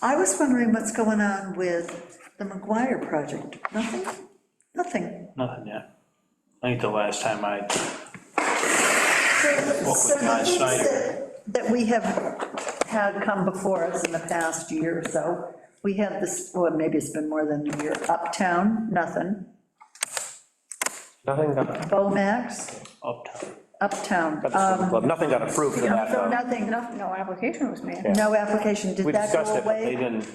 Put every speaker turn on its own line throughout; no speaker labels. I was wondering what's going on with the McGuire project, nothing? Nothing.
Nothing yet. I think the last time I,
So
with Guy
nothing
Snyder.
that- That we have had come before us in the past year or so, we had this, well, maybe it's been more than a year, Uptown, nothing,
Nothing got,
Bomax,
uptown,
Uptown,
got
um,
the swim club, nothing got approved for that,
so
though.
nothing,
No, no application was made.
no application, did
We
that go
discussed it, but they
away?
didn't,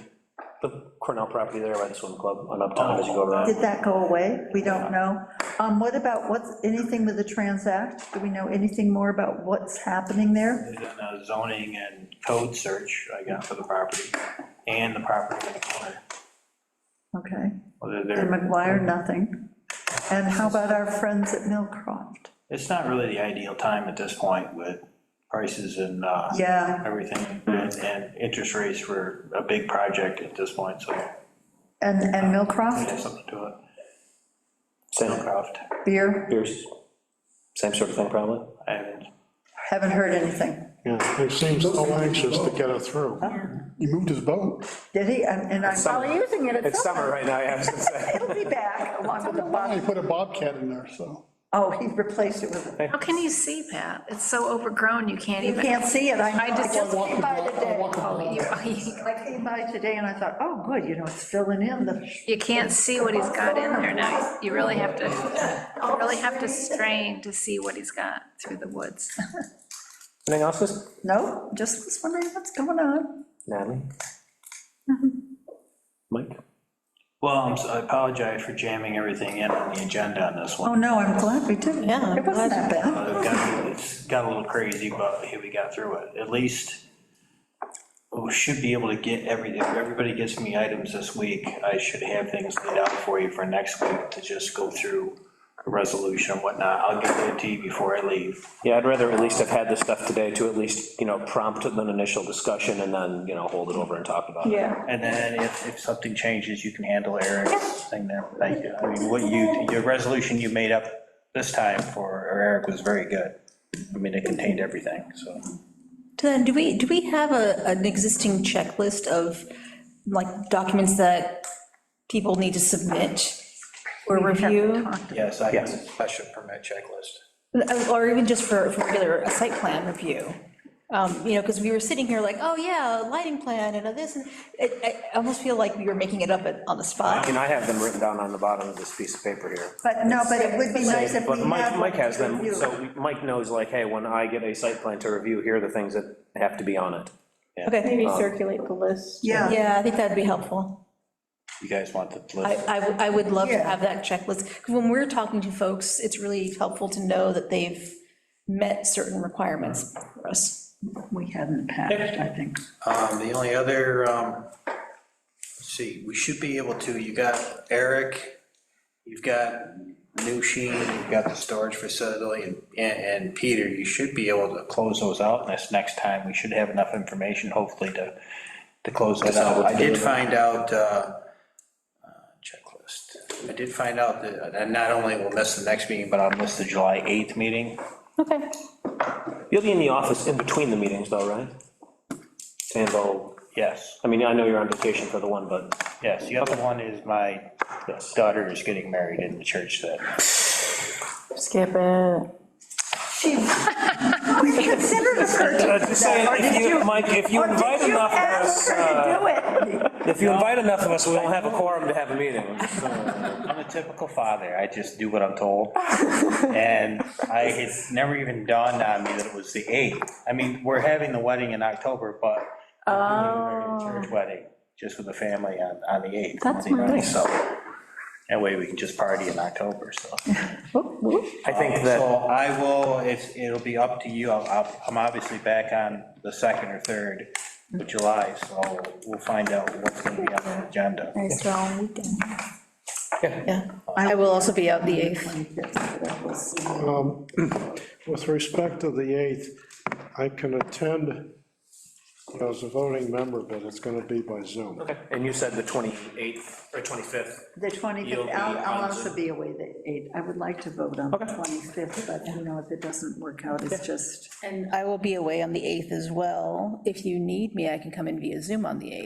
the Cornell property there by the swim club on Uptown, as you go over that.
Oh. Did that go away? We don't know. Um, what about, what's, anything with the Transact? Do we know anything more about what's happening there?
They've done a zoning and code search, I got for the property, and the property in the corner.
Okay.
Whether
And
they're,
McGuire, nothing. And how about our friends at Millcroft?
it's not really the ideal time at this point with prices and, uh,
Yeah,
everything, and, and interest rates for a big project at this point, so
and, and
there's
Millcroft,
something to it.
Same,
Hillcroft,
beer,
Pierce, same sort of thing, probably.
and
haven't heard anything.
Yeah, he seems so anxious to get it through. Ah, He moved his boat.
Did he? And and I'm,
Probably using it at
It's
some.
summer right now, yeah, I was gonna say.
he'll be back along with the
Ah, He
bob.
put a bobcat in there, so.
Oh, he replaced it with,
How can you see that? It's so overgrown, you can't
you
even.
can't see it. I
I
know.
just,
I came by
Oh,
today.
you-
I came by today and I thought, oh, good, you know, it's filling in the,
you can't see what he's got in there now. You really have to, you really have to strain to see what he's got through the woods.
Anything else, Miss
no, just was wondering what's going on.
Natalie?
Mm-hmm.
Mike?
Well, I'm so- I apologize for jamming everything in on the agenda on this
Oh,
one.
no, I'm glad we did.
Yeah,
It wasn't that bad.
Uh, it got- It's got a little crazy, but here we got through it. At least we should be able to get every, if everybody gets me items this week, I should have things laid out for you for next week to just go through a resolution and whatnot. I'll get that to you before I leave.
Yeah, I'd rather at least have had this stuff today to at least, you know, prompt an initial discussion and then, you know, hold it over and talk about it.
Yeah.
And then if, if something changes, you can handle Eric's thing there. Thank you. I mean, what you, your resolution you made up this time for Eric was very good. I mean, it contained everything, so.
Then, do we, do we have a, an existing checklist of, like, documents that people need to submit or review?
Yes, I have a special permit checklist.
Or even just for, for regular a site plan review? Um, You know, because we were sitting here like, oh, yeah, a lighting plan and a this, and it, I almost feel like we were making it up at- on the spot.
And I have them written down on the bottom of this piece of paper here.
But no, but it would be nice if we
But
had.
Mike, Mike has
one to
them,
review.
so we- Mike knows, like, hey, when I get a site plan to review, here are the things that have to be on it.
Okay,
Maybe circulate the list.
Yeah,
yeah, I think that'd be helpful.
You guys want the
I,
list?
I w- I would love to
Yeah.
have that checklist, 'cause when we're talking to folks, it's really helpful to know that they've met certain requirements for us.
we had in the past, I think.
Um, The only other, um, let's see, we should be able to, you got Eric, you've got New Sheen, you've got the storage facility, and, and and Peter, you should be able to close those out this next time. We should have enough information, hopefully, to, to close this out. I did find out, uh, uh, checklist, I did find out that, and not only will miss the next meeting, but I'll miss the July 8th meeting.
Okay.
You'll be in the office in between the meetings, though, right? To handle,
Yes,
I mean, I know you're on vacation for the one, but,
yes, the other one is my daughter is getting married in the church that
Skip it.
She, we considered her to
Uh, just saying,
Or
if
did
you, Mike, if you invite
Did you
enough of
ask
us,
her
uh,
to do it?
if you invite enough of us, we won't have a quorum to have a meeting.
I'm a typical father, I just do what I'm told. And I, it's never even dawned on me that it was the 8th. I mean, we're having the wedding in October, but I'm doing a church wedding, just with the family on, on the 8th.
Oh. That's
Monday night,
nice.
So, that way we can just party in October, so. Um,
I think
So
that,
I will, it's, it'll be up to you, I'll- I'll, I'm obviously back on the 2nd or 3rd of July, so we'll find out what's gonna be on the agenda.
Nice long weekend. Yeah, I will also be out the 8th.
Um, With respect to the 8th, I can attend as a voting member, but it's going to be by Zoom.
and you said the 28th or 25th.
The
You'll
25th,
be
I'll, I'll
on
also
Zoom.
be away the 8th. I would like to vote on the 25th, but you know, if it doesn't work out, it's just.
And I will be away on the 8th as well. If you need me, I can come in via Zoom on the 8th.